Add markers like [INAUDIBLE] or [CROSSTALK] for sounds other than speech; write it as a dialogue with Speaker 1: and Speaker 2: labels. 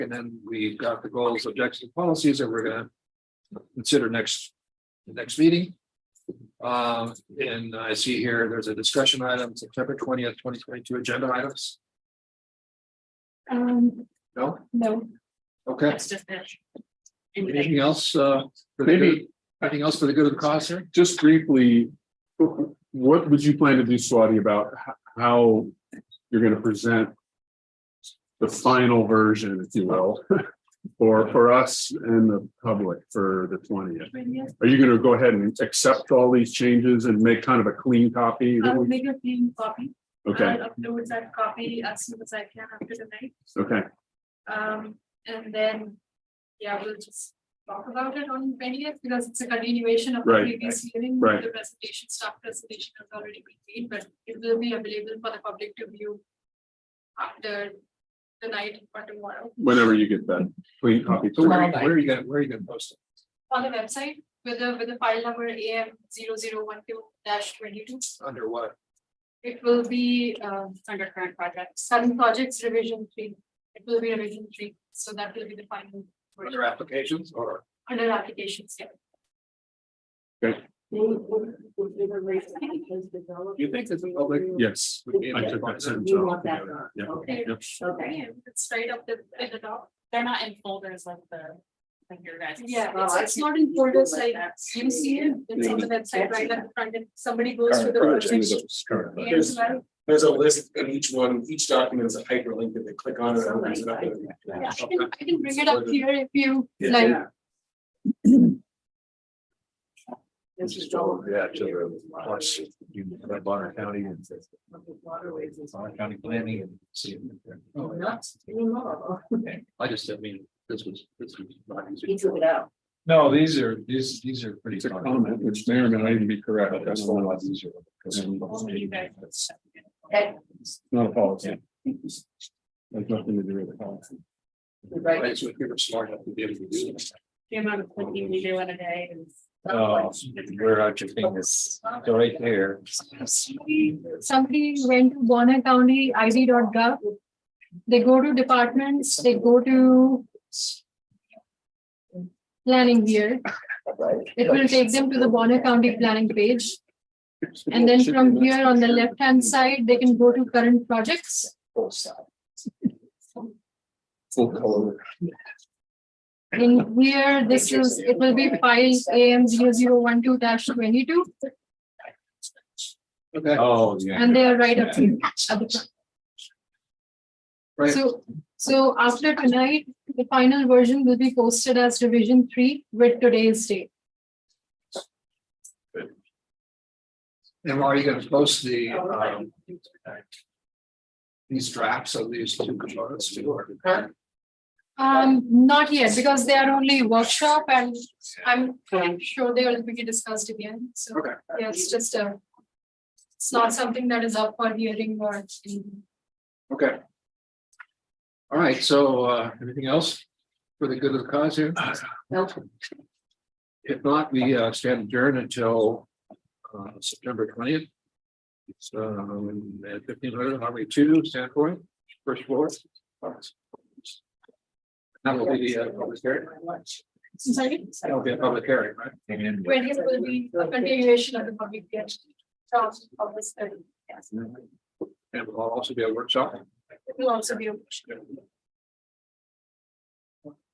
Speaker 1: And then we got the goals, objectives, and policies that we're gonna consider next, the next meeting. Um, and I see here, there's a discussion item, September twentieth, twenty twenty-two agenda items.
Speaker 2: Um,
Speaker 1: No?
Speaker 2: no,
Speaker 1: Okay.
Speaker 2: that's just it.
Speaker 1: Anything else, uh? for the
Speaker 3: Maybe-
Speaker 1: good- Anything else for the good of the cause here?
Speaker 3: just briefly, what would you plan to do, Swati, about h- how you're gonna present the final version, if you will, [LAUGHS] for, for us and the public for the twentieth?
Speaker 2: Anything?
Speaker 3: Are you gonna go ahead and accept all these changes and make kind of a clean copy?
Speaker 2: I'll make a clean copy.
Speaker 3: Okay,
Speaker 2: I'll Upload that copy as soon as I can after the night,
Speaker 3: okay,
Speaker 2: um, and then, yeah, we'll just talk about it on twentieth, because it's a continuation of the
Speaker 3: Right.
Speaker 2: previous hearing.
Speaker 3: Right.
Speaker 2: The presentation, staff presentation has already been made, but it will be available for the public to view after the night or tomorrow
Speaker 3: whenever you get that clean copy.
Speaker 1: So where, where are you gonna, where are you gonna post it?
Speaker 2: on the website with the, with the file number AM zero zero one two dash twenty-two.
Speaker 1: Under what?
Speaker 2: It will be uh under current project, sudden projects revision three, it will be revision three, so that will be the final. version.
Speaker 1: Under applications or?
Speaker 2: Under applications, yeah.
Speaker 1: Do you think it's a public?
Speaker 3: Yes.
Speaker 1: would be-
Speaker 3: I took that sentence
Speaker 4: You
Speaker 3: off.
Speaker 4: want that one.
Speaker 3: Yeah.
Speaker 4: Okay,
Speaker 3: Yep.
Speaker 4: okay.
Speaker 2: It's straight up the, at the top.
Speaker 5: They're not in folders like the, like your guys.
Speaker 2: Yeah,
Speaker 4: Oh,
Speaker 2: it's
Speaker 4: I
Speaker 2: it's
Speaker 4: see.
Speaker 2: not in folders like,
Speaker 4: That's-
Speaker 2: you see it, it's on the website right at the front and somebody goes to the
Speaker 6: Current
Speaker 2: project.
Speaker 6: projects.
Speaker 3: Correct.
Speaker 2: here as well.
Speaker 6: There's a list and each one, each document is a hyperlink that they click on and it opens it up.
Speaker 2: Yeah, I can, I can bring it up here if you
Speaker 6: Yeah.
Speaker 2: like.
Speaker 4: This is all.
Speaker 1: Yeah, to the, plus, you, Bonner County and
Speaker 4: Waterways is.
Speaker 1: Bonner County Planning and see.
Speaker 4: Oh, Not anymore.
Speaker 1: I just didn't mean, this was, this was not
Speaker 4: He
Speaker 1: easy.
Speaker 4: took it out.
Speaker 1: No, these are, these, these are pretty.
Speaker 3: It's a comment, which may or may not even be correct.
Speaker 1: But that's
Speaker 3: That's
Speaker 1: a
Speaker 3: not
Speaker 1: lot easier. because-
Speaker 5: Only you guys.
Speaker 4: Okay,
Speaker 3: a policy. It's nothing to do with the policy.
Speaker 4: right.
Speaker 1: It's what people are smart enough to be able to do this.
Speaker 5: The amount of clicking we do in a day is.
Speaker 7: Oh, where are your fingers? Go right there.
Speaker 2: somebody went to Bonner County ID.gov. They go to departments, they go to planning here. It will take them to the Bonner County planning page. And then from here on the left-hand side, they can go to current projects.
Speaker 6: Full color.
Speaker 2: In here, this is, it will be file AM 12 twenty-two
Speaker 1: Okay,
Speaker 7: Oh, yeah.
Speaker 2: and they are right up here. at the front.
Speaker 1: right.
Speaker 2: So, so after tonight, the final version will be posted as revision three with today's date.
Speaker 1: And are you gonna post the, um, these drafts of these two components to work?
Speaker 2: Um, not yet, because they are only workshop and I'm I'm sure they will be discussed again, so.
Speaker 1: Okay.
Speaker 2: Yeah, it's just a. It's not something that is up for hearing or. anything.
Speaker 1: Okay. All right, so, uh, anything else for the good of the cause here? If not, we uh, stand adjourned until uh, September twentieth. It's um, at fifteen hundred, Harvey two, Sandpoint, first floor. That will be the uh, public hearing,
Speaker 2: Sorry,
Speaker 1: that will be a public hearing, right?
Speaker 7: And
Speaker 2: twentieth will be a continuation of the public hearing. um, From August thirty, yes,
Speaker 1: And will also be a workshop.
Speaker 2: it will also be a workshop.